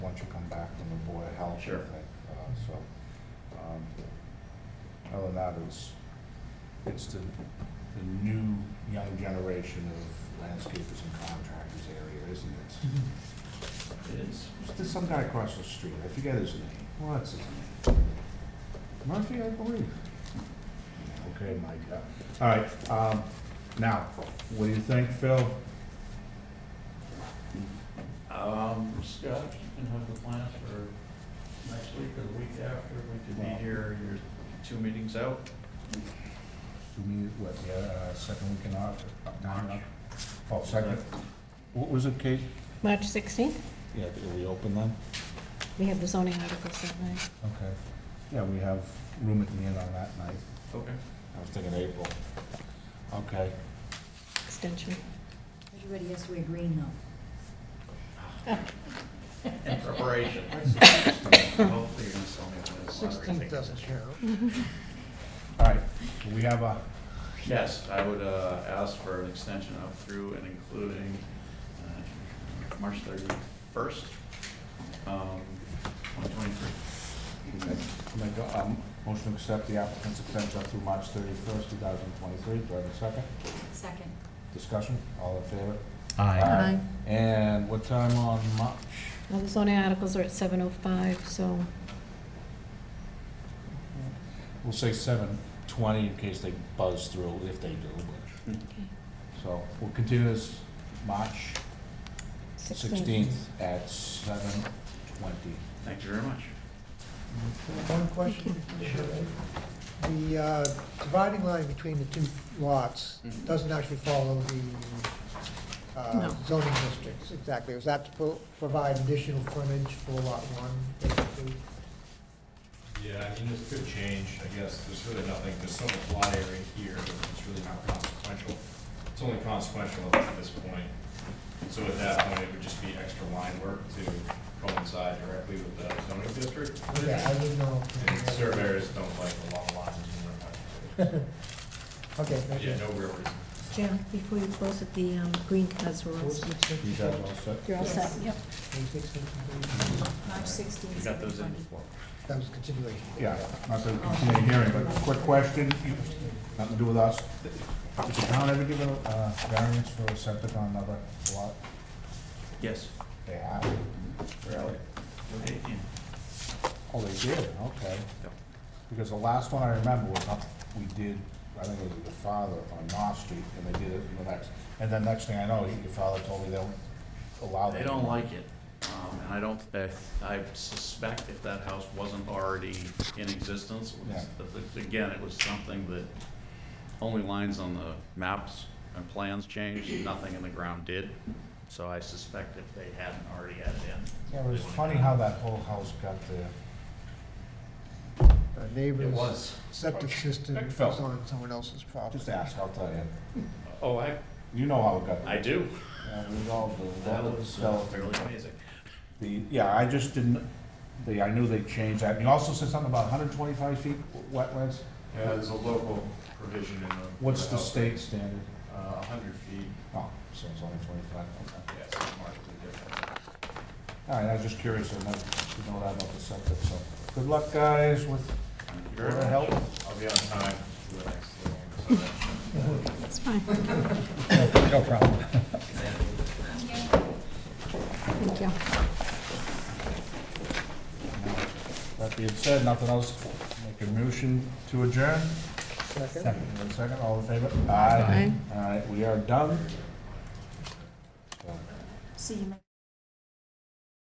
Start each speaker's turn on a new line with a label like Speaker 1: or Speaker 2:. Speaker 1: back from the Board of Health, I
Speaker 2: Sure.
Speaker 1: think. Uh, So, um, other than that, it's, it's the, the new, young generation of landscapers and contractors area, isn't it?
Speaker 2: It is.
Speaker 1: There's some guy across the street, I forget his name, what's his name? Murphy, I believe. Okay, Mike, all right, um, now, what do you think, Phil?
Speaker 2: Um, Scott, you can have the plans for next week or the week after, we could
Speaker 1: Well-
Speaker 2: be here, you're two meetings out.
Speaker 1: Do we, what, the, uh, second week in August? Oh, second, what was it, Kate?
Speaker 3: March 16th,
Speaker 1: Yeah, are we open then?
Speaker 3: we have the zoning articles that night.
Speaker 1: Okay, yeah, we have room at the inn on that night.
Speaker 2: Okay.
Speaker 1: I was thinking April. Okay.
Speaker 3: extension.
Speaker 4: Everybody has to wear green though.
Speaker 2: In preparation. Hopefully you're gonna sell me one of those lottery
Speaker 5: Sixteenth
Speaker 2: tickets.
Speaker 5: doesn't count.
Speaker 1: All right, we have a,
Speaker 2: Yes, I would uh, ask for an extension up through and including uh, March 31st, um, 2023.
Speaker 1: Make a, um, motion to accept the applicant's extension up through March thirty-first, two thousand twenty-three. Do I have a second?
Speaker 4: Second.
Speaker 1: Discussion, all in favor?
Speaker 6: Aye.
Speaker 1: Aye. And what time on March?
Speaker 3: Well, the zoning articles are at 7:05, so
Speaker 1: We'll say seven twenty in case they buzz through, if they do. but-
Speaker 3: Okay.
Speaker 1: So we'll continue this March
Speaker 3: 16th.
Speaker 1: sixteenth at seven twenty.
Speaker 2: Thank you very much.
Speaker 5: One question. The uh, dividing line between the two lots
Speaker 2: Mhm.
Speaker 5: doesn't actually follow the uh,
Speaker 3: No.
Speaker 5: zoning districts exactly. Was that to pro- provide additional frontage for lot one? basically?
Speaker 6: Yeah, I mean, this could change, I guess, there's really nothing, there's so much lot area here, it's really not consequential. It's only consequential up to this point. So at that point, it would just be extra line work to coincide directly with the zoning district.
Speaker 5: Yeah, I didn't know.
Speaker 6: And surveyors don't like the long lines in their
Speaker 5: Okay,
Speaker 6: but
Speaker 5: thank
Speaker 6: Yeah,
Speaker 5: you.
Speaker 6: no real reason.
Speaker 3: Jim, before you close it, the um, green cards were all...
Speaker 1: You guys all set?
Speaker 3: You're all set, yep.
Speaker 4: March sixteenth.
Speaker 2: You got those in?
Speaker 5: That was a continuation.
Speaker 1: Yeah, not to continue the hearing, but quick question, you- nothing to do with us. Does the town ever give a uh, variance for a septic on another lot?
Speaker 2: Yes.
Speaker 1: They have? Really?
Speaker 2: Eighteen.
Speaker 1: Oh, they did, okay.
Speaker 2: Yep.
Speaker 1: Because the last one I remember was, up- we did, I think it was the father on North Street, and they did it in the next. And then next thing I know, your father told me they don't allow that.
Speaker 2: They don't like it, um, and I don't, I- I suspect if that house wasn't already in existence, it was- but again, it was something that only lines on the maps and plans changed, nothing in the ground did, so I suspect if they hadn't already had it in.
Speaker 1: Yeah, it was
Speaker 2: they wouldn't
Speaker 1: funny
Speaker 2: have.
Speaker 1: how that whole house got there.
Speaker 5: Our
Speaker 2: It
Speaker 5: Uh, Neighbor's
Speaker 2: was.
Speaker 5: septic system
Speaker 1: Heck,
Speaker 5: is
Speaker 1: fell.
Speaker 5: on someone else's property.
Speaker 1: Just ask, I'll tell you.
Speaker 2: Oh, I,
Speaker 1: You know how it got there.
Speaker 2: I do.
Speaker 1: Yeah, we all do.
Speaker 2: That
Speaker 1: Well,
Speaker 2: was uh,
Speaker 1: so-
Speaker 2: fairly amazing.
Speaker 1: The, yeah, I just didn't, the, I knew they changed that. And you also said something about hundred and twenty-five feet wetlands.
Speaker 6: Yeah, there's a local provision in the.
Speaker 1: What's the state standard?
Speaker 6: Uh, a hundred feet,
Speaker 1: Oh, so it's only twenty-five, okay.
Speaker 6: yeah, it's markedly different.
Speaker 1: All right, I was just curious, I know, to know that about the septic, so. Good luck, guys, with
Speaker 2: Thank you
Speaker 1: your
Speaker 2: very much.
Speaker 1: help.
Speaker 6: I'll be on time for the next little one, so.
Speaker 3: That's fine,
Speaker 1: No problem.
Speaker 3: thank you.
Speaker 1: That being said, nothing else, make a motion to adjourn.
Speaker 5: Second?
Speaker 1: Give it a Second, all in favor?
Speaker 3: Aye.
Speaker 1: All right, we are done.
Speaker 4: See you.